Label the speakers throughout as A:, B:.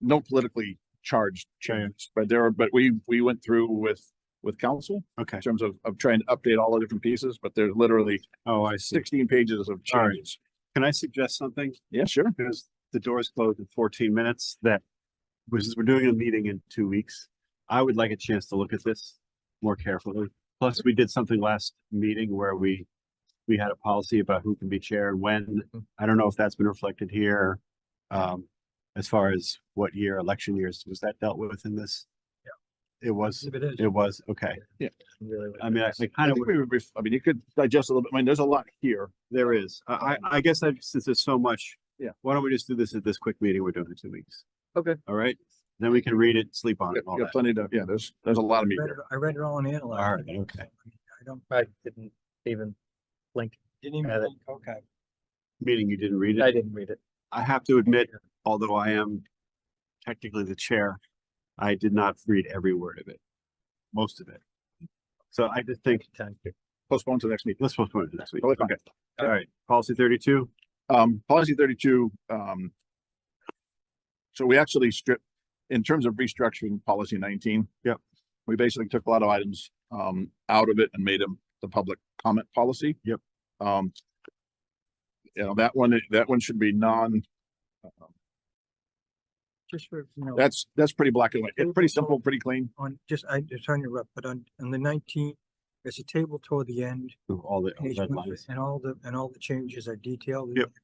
A: no politically charged change, but there are, but we, we went through with, with council
B: Okay.
A: in terms of, of trying to update all the different pieces, but there's literally
B: Oh, I see.
A: sixteen pages of
B: All right.
A: changes.
B: Can I suggest something?
A: Yeah, sure.
B: Because the doors closed in fourteen minutes that, which is, we're doing a meeting in two weeks. I would like a chance to look at this more carefully. Plus, we did something last meeting where we, we had a policy about who can be chair and when. I don't know if that's been reflected here. Um, as far as what year, election years, was that dealt with in this? Yeah. It was,
C: It is.
B: it was, okay. I mean, I I
A: I
B: kind of.
A: think we would, ref- I mean, you could digest a little bit. I mean, there's a lot here.
B: There is. I, I, I guess I, since there's so much.
A: Yeah.
B: Why don't we just do this at this quick meeting we're doing in two weeks?
C: Okay.
B: All right, then we can read it, sleep on
A: You
B: it, and all
A: got
B: that.
A: plenty to, yeah, there's, there's a lot of meat
C: read
A: here.
C: it- I read it all and
B: All
C: analyzed.
B: right,
C: it,
B: okay.
C: so, I mean, I don't.
D: I didn't even blink.
C: Didn't even.
D: Had it.
C: think, Okay.
B: Meeting, you didn't read
D: I
B: it.
D: didn't read it.
B: I have to admit, although I am technically the chair, I did not read every word of it. Most of it. So I just think,
D: Time to-
A: Postpone to the next meeting.
B: let's postpone it to next week.
A: Totally fine.
B: Okay. All right, policy thirty-two.
A: Um, policy thirty-two, um. So we actually stripped, in terms of restructuring policy nineteen.
B: Yep.
A: We basically took a lot of items, um, out of it and made them the public comment policy.
B: Yep.
A: Um. You know, that one, that one should be non,
C: Just for, you know,
A: that's, that's pretty black and white. It's pretty simple, pretty clean.
C: on, just, I, just on your rep, but on, on the nineteenth, there's a table toward the end.
B: All the
C: and it's-
B: Oh, red lines.
C: And all the, and all the changes are detailed. in
B: Yep.
C: there.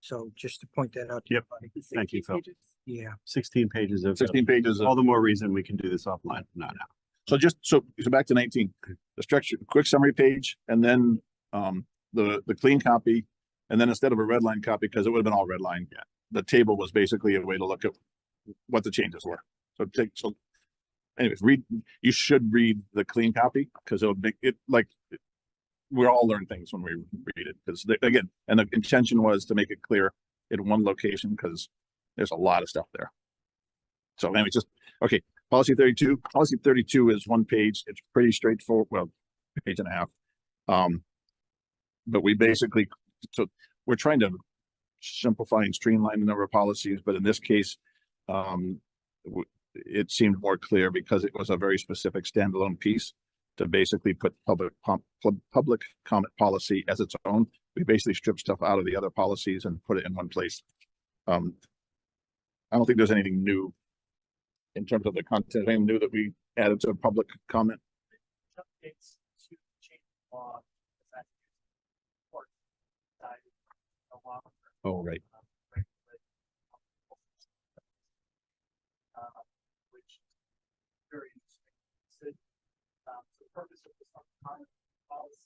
C: So just to point that out. to
B: Yep.
C: everybody.
B: Thank you, Phil.
C: Yeah,
B: Sixteen pages of,
A: Sixteen pages of
B: all the more reason we can do this offline, not now.
A: So just, so, so back to nineteen, the structure, quick summary page, and then, um, the, the clean copy. And then instead of a red line copy, because it would have been all red line, yeah, the table was basically a way to look at what the changes were. So take, so anyways, read, you should read the clean copy, because it'll make it like we all learn things when we read it, because again, and the intention was to make it clear in one location, because there's a lot of stuff there. So anyway, just Policy thirty-two, policy thirty-two is one page. It's pretty straightforward, well, page and a half. Um, but we basically, so we're trying to simplify and streamline the number of policies, but in this case, um, w- it seemed more clear because it was a very specific standalone piece to basically put public pump, pub- public comment policy as its own. We basically stripped stuff out of the other policies and put it in one place. Um, I don't think there's anything new in terms of the content, anything new that we added to public comment?
E: updates to change the law. because that's important. Uh, the law,
A: Oh, right.
E: um, regulate- Uh, Which is very interesting. So, um, the purpose of this common policy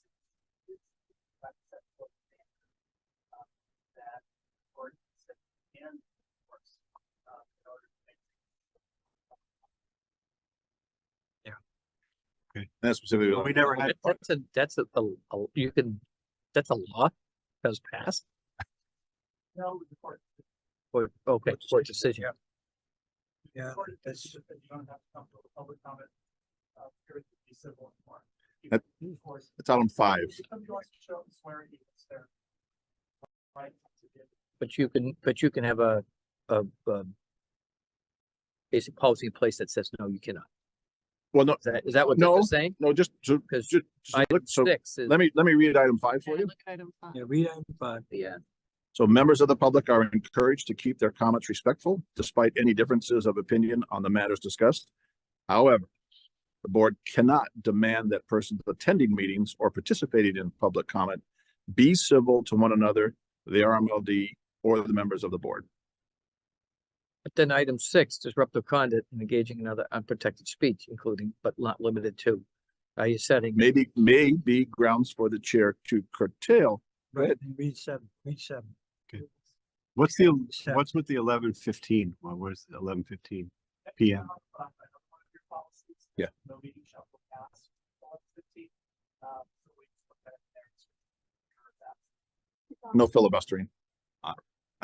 E: is that set forth standard, um, that or that can enforce uh, in order to make
A: That's specifically.
B: We never had.
D: That- That's a, that's a, a- a- you can, that's a law that was passed
E: no report.
D: or, okay, or decision.
C: yeah,
E: Or if
C: that's,
E: it's- if you don't have to come to a public comment, uh, period, it'd be civil and more. You
A: That-
E: can enforce-
A: It's out on five.
E: If Somebody wants to show up and swear at you, it's their right to do.
D: But you can, but you can have a, a, a basic policy in place that says, no, you cannot.
A: Well, no,
D: Is that, is that what this
A: No.
D: is saying?
A: no, just, so,
D: Because
A: ju- so,
D: item
A: look- so
D: six is,
A: let me, let me read item five for you.
C: yeah, read item five.
D: yeah,
A: So members of the public are encouraged to keep their comments respectful despite any differences of opinion on the matters discussed. However, the board cannot demand that persons attending meetings or participating in public comment be civil to one another, the RMLD, or the members of the board.
D: but then item six, disruptive conduct and engaging in other unprotected speech, including but not limited to. Are you setting?
A: Maybe, may be grounds for the chair to curtail Go ahead.
C: and Read seven, read seven.
B: What's the,
C: Seven.
B: what's with the eleven fifteen? Well, where's the eleven fifteen? PM.
E: Uh, I don't want your policies.
A: Yeah.
E: No meeting shall go past 11:15, uh, so we just put that in there to cover that.
A: no filibustering.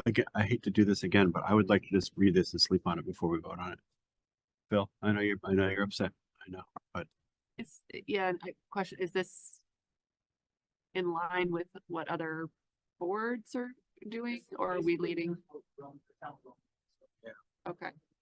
B: Again, I hate to do this again, but I would like to just read this and sleep on it before we vote on it. Phil, I know you're, I know you're upset. I know.
F: Is, yeah, and I question, is this in line with what other boards are doing or are we
E: Basically,
F: leading?
E: we're on the town road.
F: Okay,